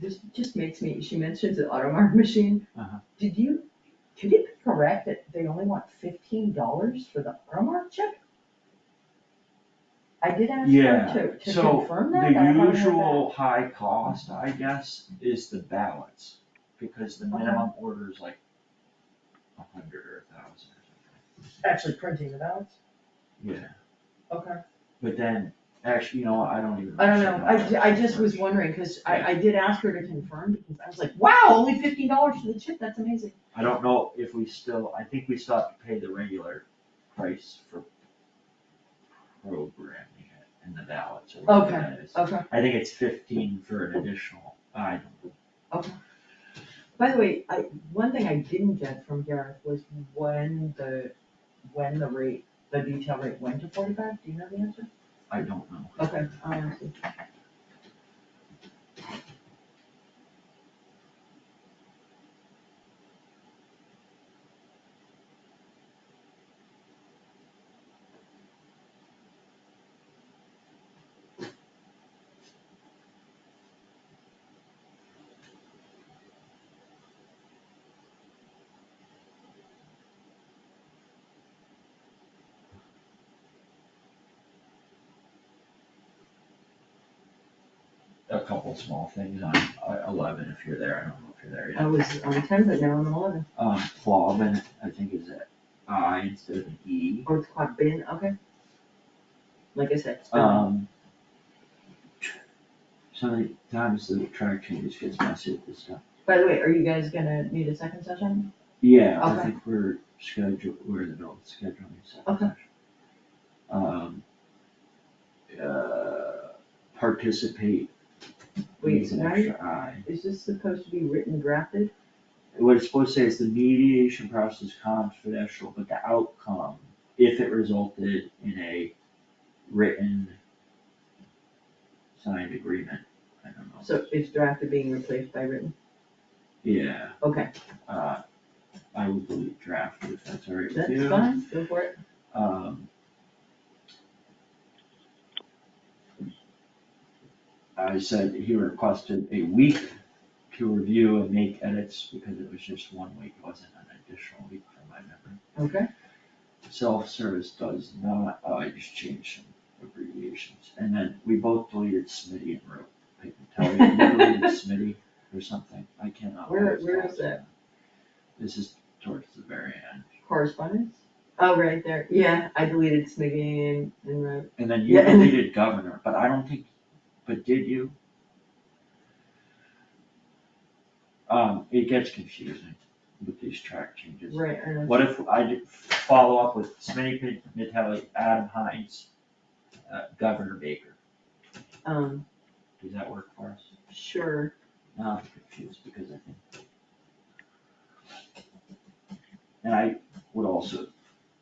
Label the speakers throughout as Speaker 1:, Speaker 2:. Speaker 1: this just makes me, she mentions the Automart machine.
Speaker 2: Uh-huh.
Speaker 1: Did you, did it be correct that they only want fifteen dollars for the Automart chip? I did ask
Speaker 2: Yeah,
Speaker 1: her to, to
Speaker 2: so
Speaker 1: confirm that, but I haven't
Speaker 2: The
Speaker 1: heard back.
Speaker 2: usual high cost, I guess, is the balance, because the
Speaker 1: Uh-huh.
Speaker 2: minimum order is like a hundred or a thousand or
Speaker 3: Actually printing it out,
Speaker 2: something. Yeah.
Speaker 3: okay.
Speaker 2: But then, actually, you know, what, I don't even.
Speaker 1: I don't
Speaker 2: actually
Speaker 1: know, I,
Speaker 2: how
Speaker 1: ju-
Speaker 2: that
Speaker 1: I just was
Speaker 2: works.
Speaker 1: wondering, cause I, I did ask her to confirm, because I was like, wow, only fifteen dollars for the chip, that's amazing.
Speaker 2: I don't know if we still, I think we still have to pay the regular price for programming it and the balance or whatever
Speaker 1: Okay,
Speaker 2: that is.
Speaker 1: Okay,
Speaker 2: I think it's fifteen for an additional item.
Speaker 1: by the way, I, one thing I didn't get from Gareth was when the, when the rate, the detail rate went to forty-five, do you know the answer?
Speaker 2: I don't know.
Speaker 1: Okay, um,
Speaker 2: a couple small things on uh, eleven, if you're there, I don't know if you're there
Speaker 1: I
Speaker 2: yet.
Speaker 1: was on ten, but now I'm on eleven,
Speaker 2: Um, Flaubin, I think is at I instead of an E.
Speaker 1: or it's clock bin, okay. Like I said, it's been-
Speaker 2: Um. Sometimes the track changes gets messy with this stuff.
Speaker 1: by the way, are you guys gonna need a second session?
Speaker 2: Yeah, I
Speaker 1: Okay.
Speaker 2: think we're scheduled, we're in the middle of scheduling a second
Speaker 1: Okay.
Speaker 2: session. Um. Uh, participate
Speaker 1: Wait,
Speaker 2: needs an
Speaker 1: now
Speaker 2: extra
Speaker 1: you-
Speaker 2: I.
Speaker 1: is this supposed to be written drafted?
Speaker 2: what it's supposed to say is the mediation process is confidential, but the outcome, if it resulted in a written signed agreement, I don't know.
Speaker 1: So is drafted being replaced by written?
Speaker 2: Yeah,
Speaker 1: Okay,
Speaker 2: uh, I would believe draft if that's all right with
Speaker 1: that's
Speaker 2: you.
Speaker 1: fine, go for it.
Speaker 2: Um. I said he requested a week to review and make edits because it was just one week, it wasn't an additional week from my memory.
Speaker 1: Okay,
Speaker 2: Self-service does not, oh, I just changed some abbreviations, and then we both deleted Smitty and wrote, I can tell you, we deleted Smitty or something, I cannot.
Speaker 1: Where-
Speaker 2: always
Speaker 1: where
Speaker 2: pronounce
Speaker 1: is that?
Speaker 2: This is towards the very end,
Speaker 1: correspondence? Oh, right there, yeah, I deleted Smiggy and, and wrote,
Speaker 2: and then you
Speaker 1: Yeah.
Speaker 2: deleted governor, but I don't think, but did you? Um, it gets confusing with these track changes.
Speaker 1: right, I know.
Speaker 2: What if I did follow up with Smitty Natalie, Adam Hines, uh, Governor Baker?
Speaker 1: Um,
Speaker 2: Does that work for us?
Speaker 1: sure,
Speaker 2: Now I'm confused because I think. And I would also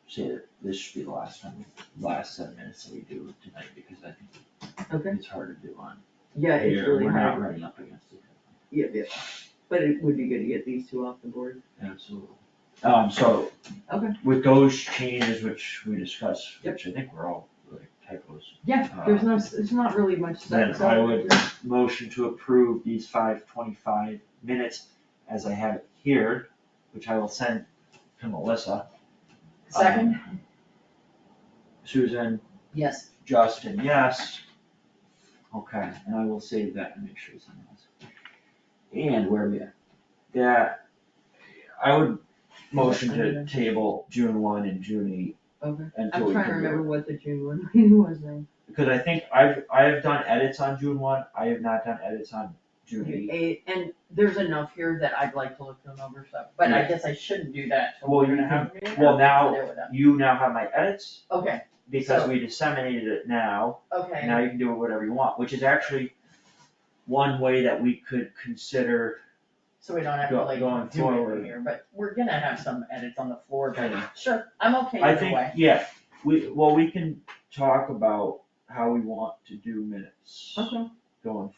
Speaker 2: say that this should be the last time, last seven minutes that we do tonight, because I think
Speaker 1: okay,
Speaker 2: it's hard to do on.
Speaker 1: yeah, it's
Speaker 2: here.
Speaker 1: really
Speaker 2: We're not
Speaker 1: hard,
Speaker 2: running up against it.
Speaker 1: yeah, yeah, but it would be good to get these two off the board,
Speaker 2: Absolutely. Um, so.
Speaker 1: Okay.
Speaker 2: With those changes which we discussed, which I think were all like typos,
Speaker 1: yeah, there's no, s- there's not really much
Speaker 2: Uh, Then
Speaker 1: stuff,
Speaker 2: I would uh, motion to approve these five twenty-five minutes as I have it here, which I will send to Melissa.
Speaker 3: Second?
Speaker 2: Um, Susan,
Speaker 1: Yes,
Speaker 2: Justin, yes. Okay, and I will save that and make sure it's on this. And where are we at? That, I would motion to table June one and June eight
Speaker 1: okay,
Speaker 2: until
Speaker 1: I'm
Speaker 2: we can.
Speaker 1: trying to
Speaker 2: do it.
Speaker 1: remember what the June one meeting was then.
Speaker 2: Because I think I've, I have done edits on June one, I have not done edits on June eight.
Speaker 1: Eight, and there's enough here that I'd like to look them over, so, but I
Speaker 2: Yeah.
Speaker 1: guess I shouldn't do that, so
Speaker 2: Well,
Speaker 1: we're
Speaker 2: you
Speaker 1: gonna
Speaker 2: can-
Speaker 1: have. a meeting
Speaker 2: well,
Speaker 1: or
Speaker 2: now-
Speaker 1: deal with them?
Speaker 2: You now have my edits,
Speaker 1: Okay,
Speaker 2: because
Speaker 1: So-
Speaker 2: we disseminated it now, and
Speaker 1: okay,
Speaker 2: now you can do whatever you want, which is actually one way that we could consider,
Speaker 1: so we don't have to
Speaker 2: Go-
Speaker 1: like do
Speaker 2: going
Speaker 1: it
Speaker 2: forward.
Speaker 1: from here, but we're gonna have some edits on the floor, but
Speaker 2: Kinda.
Speaker 1: sure, I'm okay
Speaker 2: I
Speaker 1: either
Speaker 2: think,
Speaker 1: way.
Speaker 2: yeah, we, well, we can talk about how we want to do minutes
Speaker 1: Okay.
Speaker 2: going